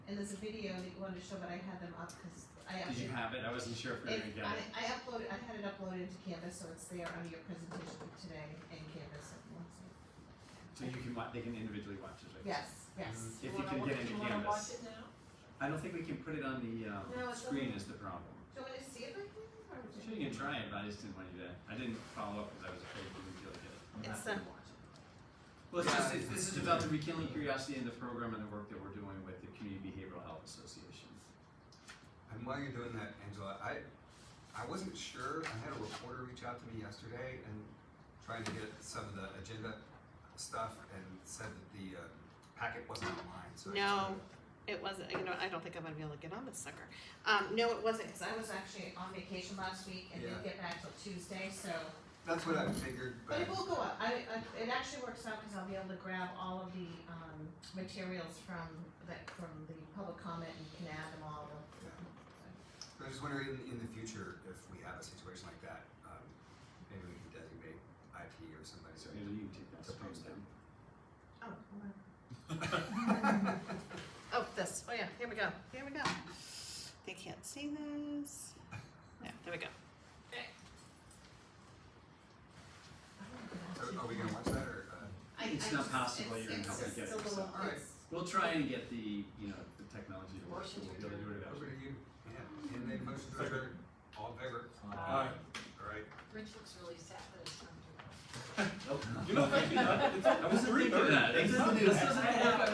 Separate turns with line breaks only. there's a video that you wanted to show, but I had them up because I
Did
actually.
you have it? I wasn't sure if we were
It,
gonna get
I,
it.
I uploaded, I had it uploaded to Canvas, so it's there under your presentation today in Canvas. if you want to.
So you can watch, they can individually watch it, right?
Yes, yes.
If you can get into
wanna watch it
Canvas.
now?
I don't think we can put it on the,
No,
um,
it's
screen is the problem.
Do you want me to see it right now? or would you-
Mm-hmm. Sure, you can try it, but I just didn't want you to, I didn't follow up because I was afraid you wouldn't be able to get it. You'll
It's um,
have to watch it. Well, it's just, it's, this is about the rekindling curiosity in the program and the work that we're doing with the Community Behavioral Health Association.
And while you're doing that, Angela, I, I wasn't sure, I had a reporter reach out to me yesterday and trying to get some of the agenda stuff and said that the uh, packet wasn't online, so. I just
No.
wanted to-
It wasn't, you know, I don't think I'm gonna be able to get on this sucker. Um, no, it wasn't,
Because I was actually on vacation last week and didn't get back till Tuesday, so.
That's what I figured,
But
but
it will go up. I, I, it actually works out because I'll be able to grab all of the, um, materials from the, from the public comment and can add them all.
I was just wondering in, in the future, if we have a situation like that, um, maybe we can designate IT or somebody.
So Angela, you can take that.
To post them.
Oh, hold on.
oh, this, oh yeah, here we go, here we go. They can't see this. Yeah, there we go.
So are we gonna watch that or, uh,
I- I
It's not
just-
possible
it's-
you're gonna
it's
help me get
just a
it,
little-
so.
All right.
it's-
We'll try and get the, you know, the technology to work, so
motion
we'll
to
be able to do it
adjourn? Over
eventually.
to you, yeah, and then motion to adjourn, all in favor,
Alright.
all right?
Rich looks really sad that it's time to go.
I wasn't thinking that. It's- it's-